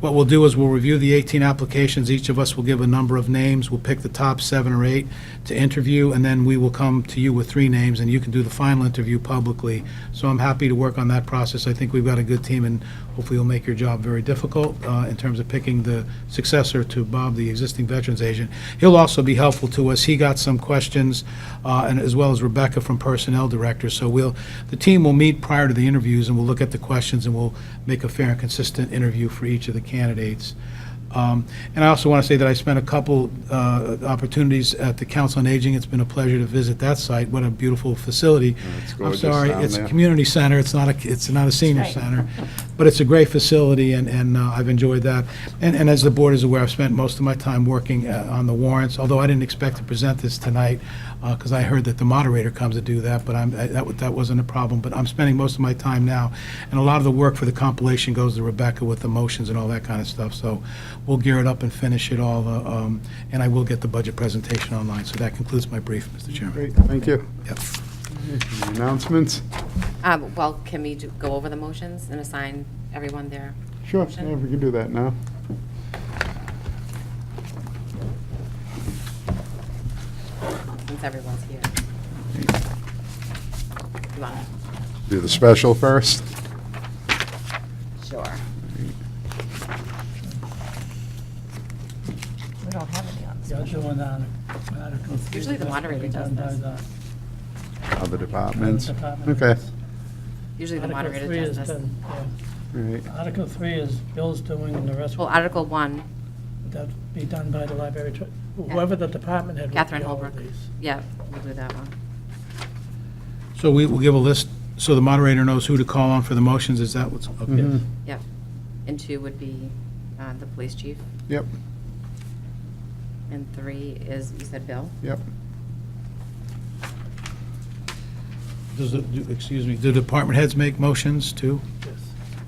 What we'll do is we'll review the 18 applications. Each of us will give a number of names. We'll pick the top seven or eight to interview, and then we will come to you with three names, and you can do the final interview publicly. So I'm happy to work on that process. I think we've got a good team, and hopefully will make your job very difficult uh, in terms of picking the successor to Bob, the existing Veterans Agent. He'll also be helpful to us. He got some questions, uh, and as well as Rebecca from Personnel Director. So we'll, the team will meet prior to the interviews, and we'll look at the questions, and we'll make a fair and consistent interview for each of the candidates. Um, And I also want to say that I spent a couple uh, opportunities at the Council on Aging. It's been a pleasure to visit that site. What a beautiful facility. it's gorgeous I'm sorry, down it's a there. community center, it's not a, it's not a senior That's right. center, but it's a great facility, and, and uh, I've enjoyed that. And, and as the board is aware, I've spent most of my time working uh, on the warrants, although I didn't expect to present this tonight, because I heard that the moderator comes to do that, but I'm, I- that, wa- that wasn't a problem, but I'm spending most of my time now, and a lot of the work for the compilation goes to Rebecca with the motions and all that kind of stuff, so we'll gear it up and finish it all, uh, um, and I will get the budget presentation online, so that concludes my brief, Mr. Chairman. Great, thank you. Yep. Any Announcements? Um, Well, can we do- go over the motions and assign everyone their? Sure, motion? yeah, we can do that now. Since everyone's here. You want Do the special first. to? Sure. We don't have any on this. Yeah, the one on Article 3. Usually the that's moderator been does done by this. the- Other by the departments? department Okay, heads. Usually the Article moderator three does is this. done, all right. yeah. Article 3 is Bill's doing, and the rest Well, will Article 1, be done by the library, tr- whoever the department head. will Catherine do all of Holbrook. these. Yeah, we'll do that one. So we will give a list, so the moderator knows who to call on for the motions, is that what's, okay. Mhm. Yep. And 2 would be uh, the police chief, Yep, and 3 is, you said Bill? yep. Does, the- do- excuse me, do department heads make motions too? Yes.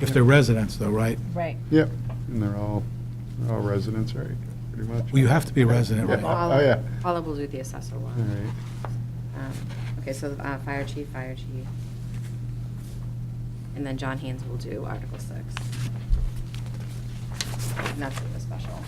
If they're residents though, right? Right. Yep, and they're all, they're all residents, right, pretty much? Well, you have to be a resident, Yeah. right? Paula- Oh, yeah. Paula will do the assessor All one. right, Um, Okay, so uh, fire chief, fire chief. And then John Haynes will do Article 6. And that's the special.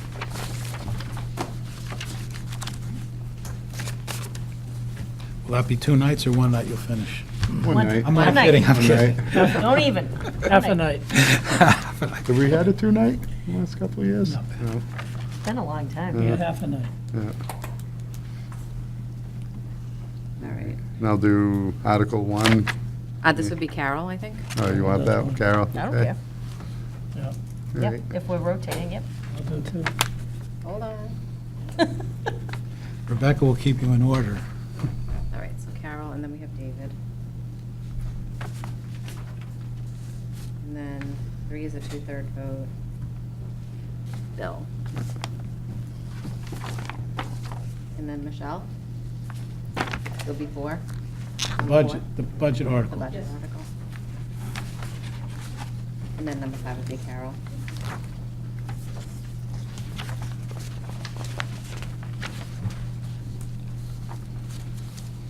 Will that be two nights or one night you'll finish? one One- I'm night. not One night. kidding, I'm One kidding. night. Don't even. Half a night. Have we had a two-night in the last couple of years? No. No. It's been a long time. Yeah. Yeah, half a night. Yeah. All right. And I'll do Article 1. Uh, This would be Carol, I think. Oh, you want that, one, Carol? I don't Okay. care. Yeah, All Yep, right. if we're rotating, yep. I'll do two. Hold on. Rebecca will keep you in order. All right, so Carol, and then we have David. And then three is a two-third vote. Bill. And then Michelle? It'll be four? Budget, the budget The article. budget article. And then number five would be Carol.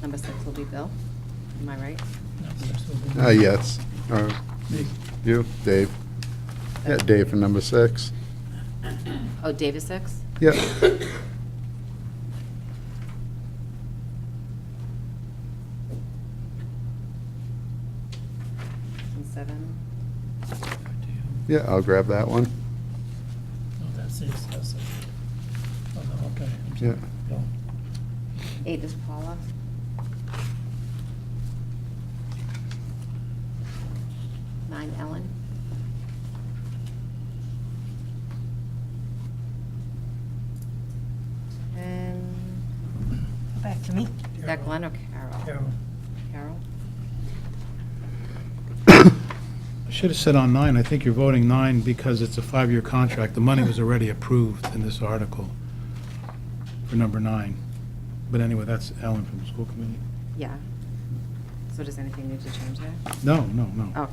Number six will be Bill, am I right? No, six will be- Uh, yes, or Me. you, Dave. Yeah, Dave for number six. Oh, Dave is six? Yep. And seven? Yeah, I'll grab that one. No, that's six, that's six. Oh, no, okay. I'm sorry. Yeah. Bill. Eight is Paula. Nine, Ellen. And Back to me. is that Glenn or Carol? Carol. Carol? I should have said on nine, I think you're voting nine because it's a five-year contract. The money was already approved in this article for number nine. But anyway, that's Ellen from the school committee. Yeah. So does anything need to change there? No, no, no. Oh.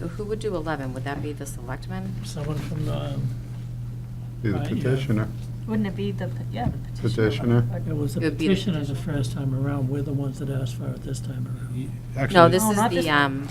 So who would do 11? Would that be the selectmen? Someone from the, um, Be the Right, yeah. petitioner. Wouldn't it be the, pe- yeah, the petitioner? Petitioner. it was the It would be the- petitioners the first time around, we're the ones that asked for it this time around. Actually- No, this Oh, is not the, this- um,